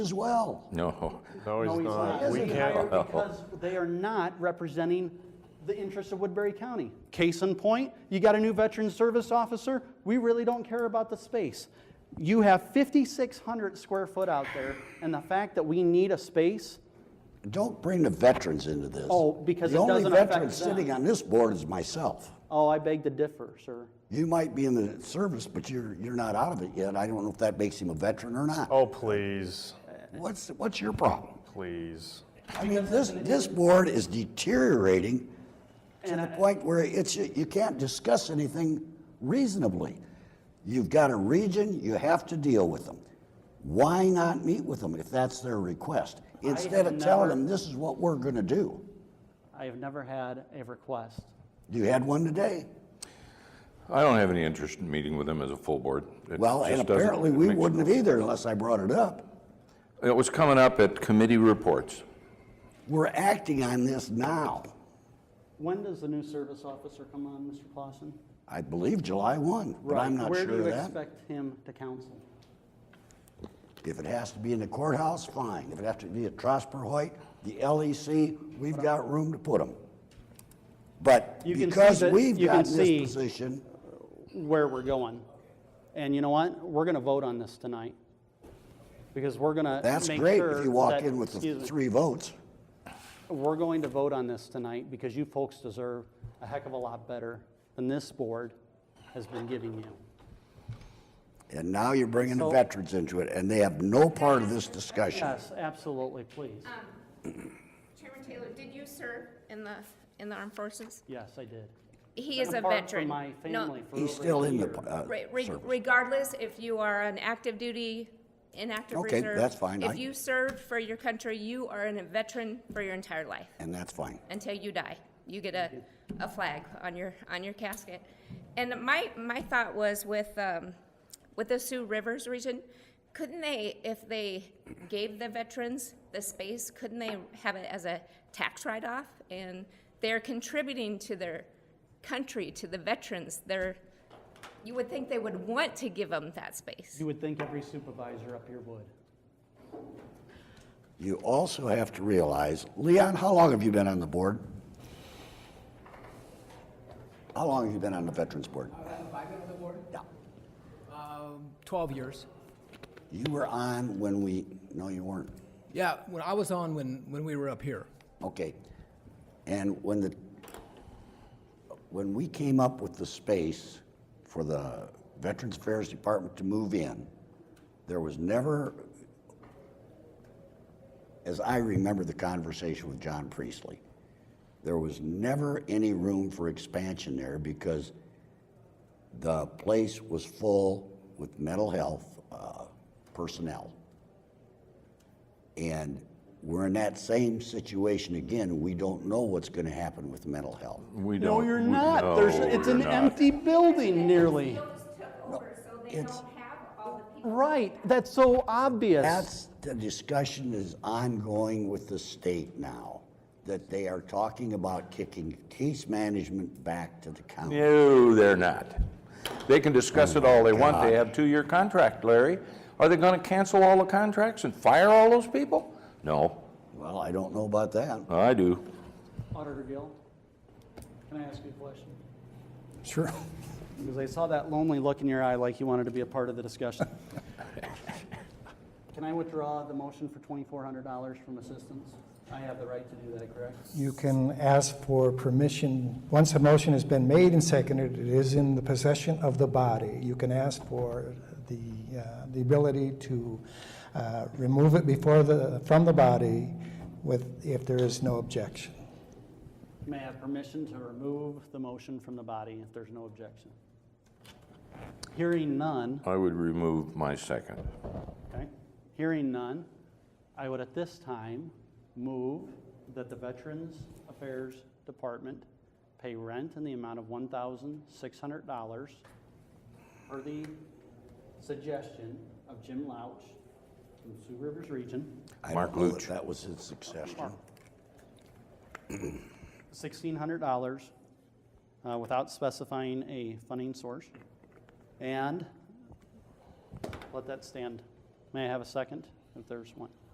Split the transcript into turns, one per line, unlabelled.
as well.
No.
No, he's
No, he's
not.
not.
We
Isn't
can't.
hired because they are not representing the interests of Woodbury County. Case in point, you got a new veteran service officer, we really don't care about the space. You have 5,600 square foot out there, and the fact that we need a space,
Don't bring the veterans into this.
Oh, because
the
it
only
doesn't affect
veteran
them.
sitting on this board is myself.
oh, I beg to differ, sir.
You might be in the service, but you're you're not out of it yet. I don't know if that makes him a veteran or not.
Oh, please,
What's what's your problem?
please.
I mean, this this board is deteriorating to the point where it's you can't discuss anything reasonably. You've got a region, you have to deal with them. Why not meet with them if that's their request? Instead of telling
never-
them this is what we're going to do.
I have never had a request.
You had one today.
I don't have any interest in meeting with him as a full board. It
Well, and
just doesn't-
apparently
it
we
makes-
wouldn't have either unless I brought it up.
It was coming up at committee reports.
We're acting on this now.
When does the new service officer come on, Mr. Clausen?
I believe July 1, but I'm not
Where
sure
do
of
you
that.
expect him to counsel?
If it has to be in the courthouse, fine. If it has to be at Trosper Hoyt, the LEC, we've got room to put them. But
You can see
because
that-
we've
you can
got in
see-
this position,
where we're going. And you know what? We're going to vote on this tonight. Because we're going to
that's
make
great
sure
if you walk
that-
in with the
excuse me.
three votes.
We're going to vote on this tonight because you folks deserve a heck of a lot better than this board has been giving you.
And now you're bringing the
So-
veterans into it, and they have no part of this discussion.
Yes, absolutely, please.
Um, Chairman Taylor, did you serve in the, in the armed forces?
Yes, I did.
He is a
Apart from
veteran.
my
No,
family for
He's
over
still
a
in the
year.
uh,
re- re-
service.
Regardless, if you are an active duty, inactive
Okay,
reserve.
that's fine. I-
If you served for your country, you are a veteran for your entire life,
and that's fine.
until you die. You get a, a flag on your, on your casket. And my, my thought was with, um, with the Sioux Rivers region, couldn't they, if they gave the veterans the space, couldn't they have it as a tax write-off? And they're contributing to their country, to the veterans, they're, you would think they would want to give them that space.
You would think every supervisor up here would.
You also have to realize, Leon, how long have you been on the board? How long have you been on the Veterans Board?
I've been on the board
Yeah.
12 Um, years.
You were on when we, no, you weren't.
Yeah, when I was on when, when we were up here.
Okay. And when the, when we came up with the space for the Veterans Affairs Department to move in, there was never, as I remember the conversation with John Priestley, there was never any room for expansion there because the place was full with mental health uh, personnel. And we're in that same situation again. We don't know what's going to happen with mental health.
We don't.
No, you're
we-
not. There's,
no,
it's
you're
an
not.
empty building nearly.
It's,
Right, that's so obvious.
that's, the discussion is ongoing with the state now, that they are talking about kicking case management back to the county.
No, they're not. They can discuss it all they want. They
God.
have two-year contract, Larry. Are they going to cancel all the contracts and fire all those people? No,
Well, I don't know about that.
I do.
Auditor Gill, can I ask you a question?
Sure.
Because I saw that lonely look in your eye like you wanted to be a part of the discussion. Can I withdraw the motion for $2,400 from assistance? I have the right to do that, correct?
You can ask for permission, once a motion has been made and seconded, it is in the possession of the body. You can ask for the, uh, the ability to uh, remove it before the, from the body with, if there is no objection.
May I have permission to remove the motion from the body if there's no objection? Hearing none,
I would remove my second.
okay, hearing none, I would at this time move that the Veterans Affairs Department pay rent in the amount of $1,600 per the suggestion of Jim Louch from Sioux Rivers Region.
I
Mark
don't know
Luch.
if that was his suggestion.
sixteen hundred dollars uh, without specifying a funding source. And let that stand. May I have a second? if there's one.